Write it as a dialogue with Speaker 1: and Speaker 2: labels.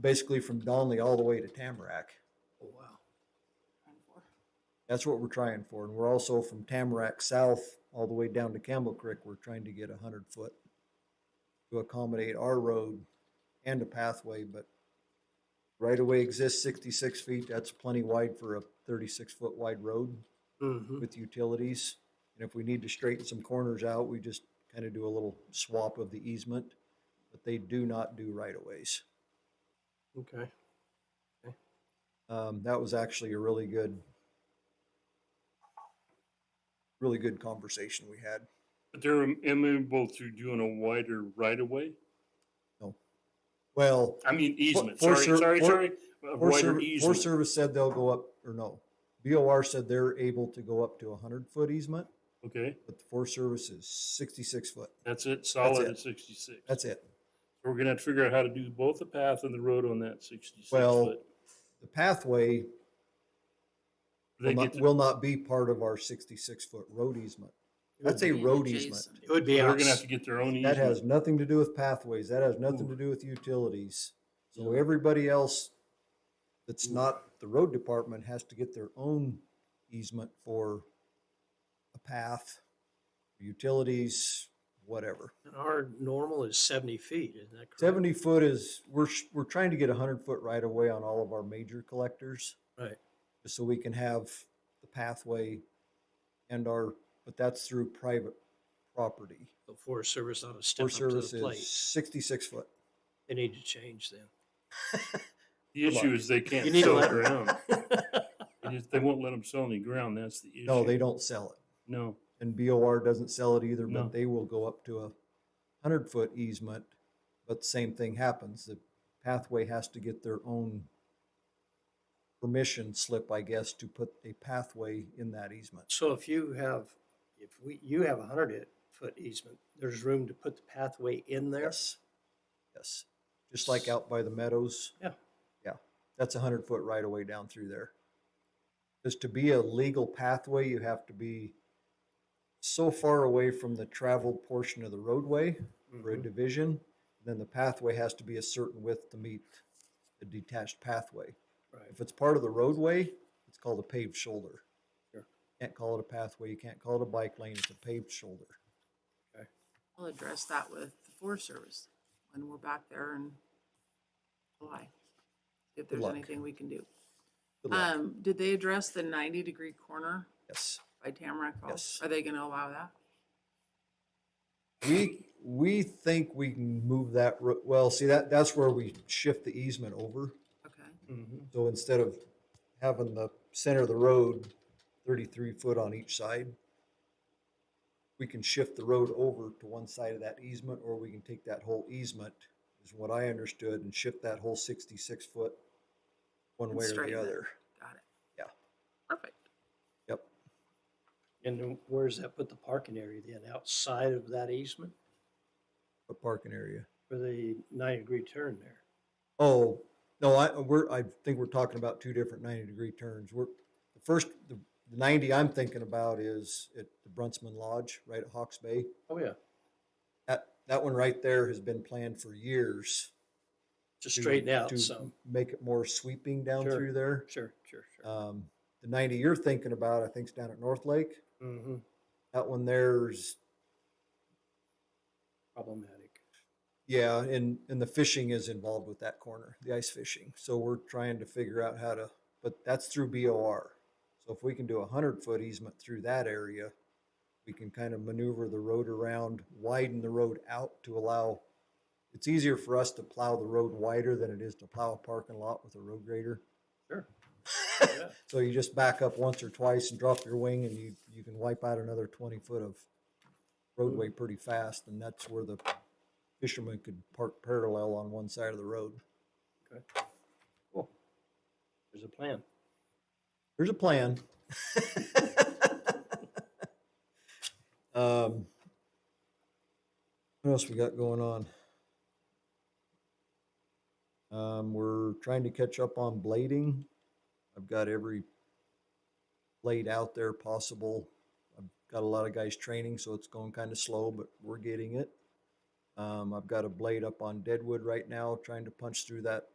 Speaker 1: basically from Donley all the way to Tamarack. Oh,
Speaker 2: wow.
Speaker 1: That's what we're trying for. And we're also from Tamarack South all the way down to Campbell Creek, we're trying to get a hundred foot to accommodate our road and a pathway, but right away exists sixty-six feet. That's plenty wide for a thirty-six foot wide road
Speaker 2: Mm-hmm.
Speaker 1: with utilities. And if we need to straighten some corners out, we just kind of do a little swap of the easement. But they do not do right of ways.
Speaker 2: Okay.
Speaker 1: Um, that was actually a really good, really good conversation we had.
Speaker 3: But they're amenable to doing a wider right of way?
Speaker 1: Well,
Speaker 3: I mean easement,
Speaker 1: For- for
Speaker 3: sorry,
Speaker 1: sur-
Speaker 3: sorry,
Speaker 1: for-
Speaker 3: sorry. A
Speaker 1: Forest
Speaker 3: wider
Speaker 1: Service, Forest
Speaker 3: easement.
Speaker 1: Service said they'll go up, or no, BOR said they're able to go up to a hundred foot easement,
Speaker 3: Okay,
Speaker 1: but the Forest Service is sixty-six foot.
Speaker 3: that's it, solid
Speaker 1: it.
Speaker 3: at sixty-six.
Speaker 1: That's it.
Speaker 3: We're gonna have to figure out how to do both the path and the road on that sixty-six
Speaker 1: Well,
Speaker 3: foot.
Speaker 1: The pathway will
Speaker 3: They get
Speaker 1: not,
Speaker 3: to,
Speaker 1: will not be part of our sixty-six foot road easement. That's a
Speaker 4: be
Speaker 1: road easement.
Speaker 4: adjacent.
Speaker 2: It would be
Speaker 3: they're
Speaker 2: out.
Speaker 3: gonna have to get their own
Speaker 1: That has
Speaker 3: easement.
Speaker 1: nothing to do with pathways. That has nothing to
Speaker 3: Ooh.
Speaker 1: do with utilities. So
Speaker 3: Yeah.
Speaker 1: everybody else that's not the road department has to get their own easement for a path, utilities, whatever.
Speaker 2: Our normal is seventy feet, isn't that correct?
Speaker 1: Seventy foot is, we're, sh- we're trying to get a hundred foot right away on all of our major collectors.
Speaker 2: Right.
Speaker 1: Just so we can have the pathway and our, but that's through private property.
Speaker 2: The Forest Service ought to step up
Speaker 1: Forest
Speaker 2: to
Speaker 1: Service
Speaker 2: the
Speaker 1: is
Speaker 2: plate.
Speaker 1: sixty-six foot.
Speaker 2: They need to change them.
Speaker 3: The issue is they can't
Speaker 2: You need to
Speaker 3: sell
Speaker 2: let-
Speaker 3: ground. They just- They won't let them sell any ground, that's the issue.
Speaker 1: No, they don't sell it.
Speaker 3: No,
Speaker 1: And BOR doesn't sell it either,
Speaker 3: No.
Speaker 1: but they will go up to a hundred foot easement. But the same thing happens. The pathway has to get their own permission slip, I guess, to put a pathway in that easement.
Speaker 2: So if you have, if we, you have a hundred foot easement, there's room to put the pathway in there?
Speaker 1: Yes. Yes. Just like out by the meadows.
Speaker 2: Yeah.
Speaker 1: Yeah. That's a hundred foot right away down through there. Because to be a legal pathway, you have to be so far away from the traveled portion of the roadway for a
Speaker 2: Mhm.
Speaker 1: division. Then the pathway has to be a certain width to meet the detached pathway.
Speaker 2: Right,
Speaker 1: If it's part of the roadway, it's called a paved shoulder.
Speaker 2: Sure.
Speaker 1: Can't call it a pathway. You can't call it a bike lane. It's a paved shoulder.
Speaker 4: I'll address that with the Forest Service when we're back there in July. If there's
Speaker 1: luck.
Speaker 4: anything we can do.
Speaker 1: Good luck.
Speaker 4: Um, did they address the ninety degree corner
Speaker 1: Yes.
Speaker 4: by Tamarack Falls?
Speaker 1: Yes.
Speaker 4: Are they gonna allow that?
Speaker 1: We, we think we can move that, ro- well, see, that, that's where we shift the easement over.
Speaker 4: Okay,
Speaker 3: Mhm.
Speaker 1: So instead of having the center of the road thirty-three foot on each side, we can shift the road over to one side of that easement, or we can take that whole easement, is what I understood, and shift that whole sixty-six foot one
Speaker 4: And
Speaker 1: way or
Speaker 4: straighten
Speaker 1: the
Speaker 4: it.
Speaker 1: other.
Speaker 4: got it.
Speaker 1: Yeah.
Speaker 4: Perfect.
Speaker 1: Yep.
Speaker 2: and then where does that put the parking area then, outside of that easement
Speaker 1: A parking area.
Speaker 2: for the nine degree turn there?
Speaker 1: Oh, no, I, we're, I think we're talking about two different ninety degree turns. We're, the first, the ninety I'm thinking about is at the Brunsman Lodge, right at Hawks Bay.
Speaker 2: Oh, yeah,
Speaker 1: That, that one right there has been planned for years.
Speaker 2: to
Speaker 1: to-
Speaker 2: straighten out
Speaker 1: to
Speaker 2: some,
Speaker 1: Make it more sweeping down
Speaker 2: Sure.
Speaker 1: through there.
Speaker 2: sure, sure, sure.
Speaker 1: Um, the ninety you're thinking about, I think is down at North Lake.
Speaker 2: Mm-hmm,
Speaker 1: That one there's,
Speaker 2: problematic.
Speaker 1: yeah, and, and the fishing is involved with that corner, the ice fishing. So we're trying to figure out how to, but that's through BOR. So if we can do a hundred foot easement through that area, we can kind of maneuver the road around, widen the road out to allow, it's easier for us to plow the road wider than it is to plow a parking lot with a road grader.
Speaker 2: Sure. Yeah.
Speaker 1: So you just back up once or twice and drop your wing and you, you can wipe out another twenty foot of roadway pretty fast and that's where the fishermen could park parallel on one side of the road.
Speaker 2: Cool. There's a plan.
Speaker 1: There's a plan. Um, What else we got going on? Um, we're trying to catch up on blading. I've got every blade out there possible. I've got a lot of guys training, so it's going kind of slow, but we're getting it. Um, I've got a blade up on Deadwood right now, trying to punch through that